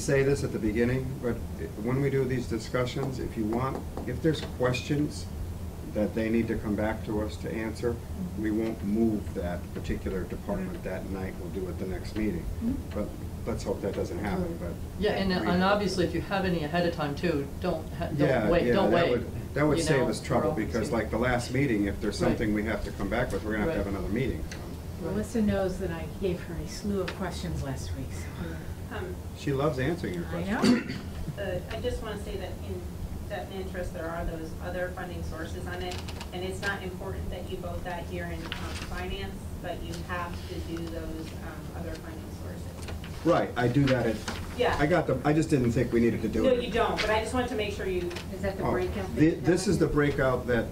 say this at the beginning, but when we do these discussions, if you want, if there's questions that they need to come back to us to answer, we won't move that particular Mm-hmm. department that night, we'll do it the next meeting. Mhm. But let's hope that doesn't happen, but. Yeah, and, uh, and obviously, if you have any ahead of time too, don't, ha- Yeah, don't wait, yeah, don't that wait. would- That would you save know, us trouble, or- because like the last meeting, if there's Right. something we have to come back with, we're gonna have to have Right. another meeting. Melissa knows that I gave her a slew of questions last week, so. Um, She loves answering your I questions. know. the- I just want to say that in debt and interest, there are those other funding sources on it. And it's not important that you vote that here in um, finance, but you have to do those um, other funding sources. Right, I do that at, Yeah. I got the, I just didn't think we needed to do No, it. you don't, but I just wanted to make sure you, Is that the Oh, breakout? thi- This is the breakout that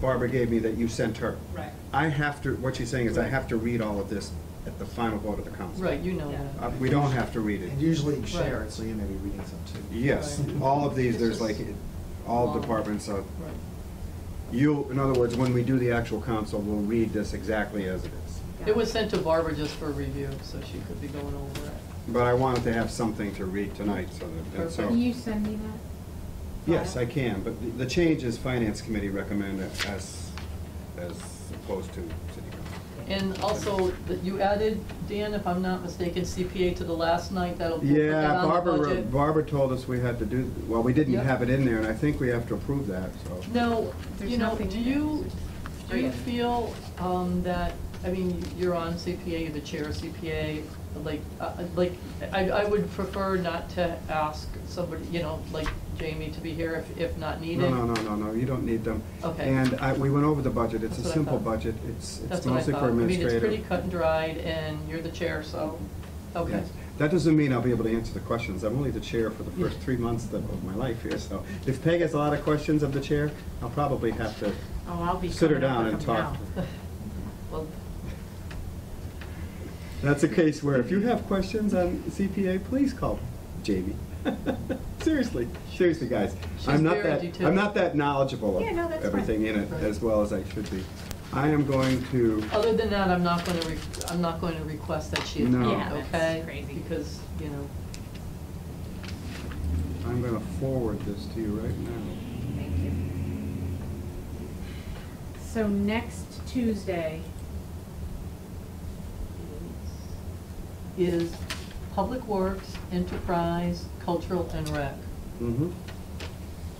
Barbara gave me that you sent her. right. I have to, what she's saying is I have to read all of this at the final vote of the council. Right, you know Yeah. Uh, that. We don't have to read And it. usually you share it, so you may be reading some too. Yes, Right. all of these, there's like, all Long. departments are, Right. you, in other words, when we do the actual council, we'll read this exactly as it is. It was sent to Barbara just for review, so she could be going over it. But I wanted to have something to read tonight, so that, and Can so, you send me that? yes, I can, but the- the change is finance committee recommended as, as opposed to city council. And also, that you added, Dan, if I'm not mistaken, CPA to the last night, that'll put that Yeah, on the Barbara, budget. Barbara told us we had to do, well, we didn't Yep. have it in there, and I think we have to approve that, so. No, There's you know, nothing do in it. you, do you Right. feel um, that, I mean, you're on CPA, you're the chair of CPA, like, uh, like, I, I would prefer not to ask somebody, you know, like Jamie to be here if, if not No, needed. no, no, no, no, you don't need them. Okay. And I, we went over the budget, it's a That's what I simple thought. budget, it's, it's That's what I mostly thought. for I mean, it's administrative. pretty cut and dried, and you're the chair, so, okay. Yes. That doesn't mean I'll be able to answer the questions, I'm only the chair for the first three months of of my life here, so. If Peg has a lot of questions of the chair, I'll probably have to, Oh, I'll be Sit her coming up down with and them talk. now. Well, that's a case where if you have questions on CPA, please call Jamie. Seriously, seriously, guys. She's I'm not very that, detailed. I'm not that knowledgeable Yeah, no, of that's everything in it Right. as well as I should be. I am going to, Other than that, I'm not going to, I'm not going to request that she No. attend, Yeah, okay? that's crazy. Because, you know, I'm gonna forward this to you right now. Thank you. So next Tuesday, is, is Public Works, Enterprise, Cultural, and Rec. Mm-hmm.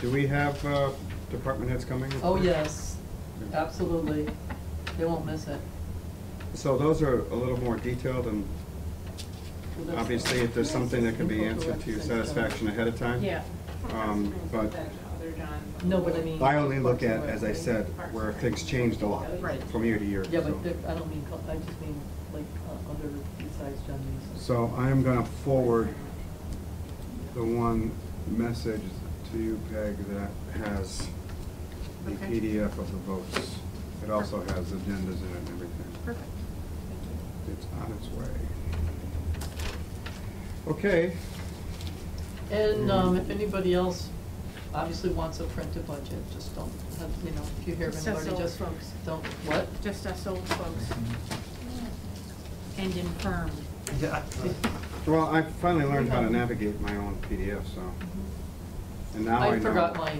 Do we have, uh, department heads coming? Oh, yes, absolutely. They won't miss it. So those are a little more detailed and Well, that's- obviously if there's something that can be answered to your satisfaction ahead of time. yeah, Um, but- That other John. No, but I mean. I only look at, as I said, where things changed a lot Right. from year to year. Yeah, but so. there- uh, I don't mean, cul- I just mean like uh, other besides John Mason. So I am gonna forward the one message to you, Peg, that has the Okay. PDF of the votes. It also has agendas in it and everything. perfect. It's on its way. Okay, mm-hmm. And um, if anybody else obviously wants a printed budget, just don't, have- you know, if you hear of Just anybody, old just folks. don't, what? Just us old folks and infirm. Yeah. well, I finally learned how to navigate my own PDF, so, and now I know. I forgot my,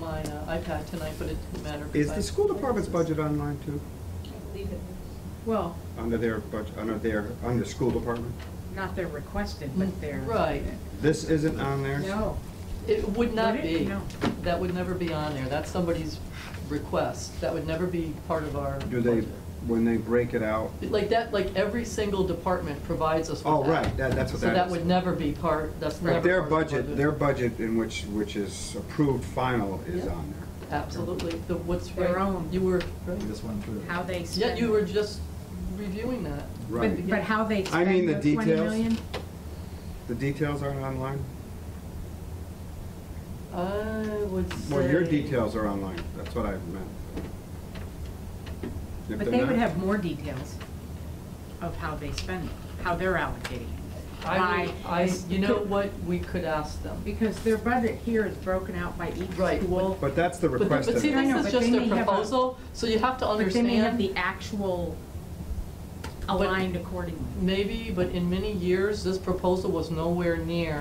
my uh, iPad tonight, but it didn't matter. 'cause Is I- the school department's budget online too? Well, Under their budget, under their, under school department? not they're requested, but they're. Mm. Right. This isn't on theirs? No. It would not Would it? be. No. That would never be on there. That's somebody's request. That would never be part of our. Do they, budget. when they break it out? Like that, like every single department provides us with that. Oh, right, that, that's what So that is. that would never be part, that's never But part of their our budget, their budget in which, which is approved final is Yeah. on there. Absolutely, the, what's right. Their own. You were, right. We just went through. How they spend. Yeah, you were just reviewing that. But, Right. but how they I mean spend the the twenty details. million? The details aren't online? I would say. Well, your details are online, that's what I meant. If But they're they would not- have more details of how they spend it, how they're allocating it. I, Why- would- I, you know what, we could ask them. Because their budget here is broken out by each Right, school. But that's the But- request. But of see, it. I know, this is but just they a may have a- proposal, so you have to But then they have understand, the actual but aligned accordingly. Maybe, but in many years, this proposal was nowhere near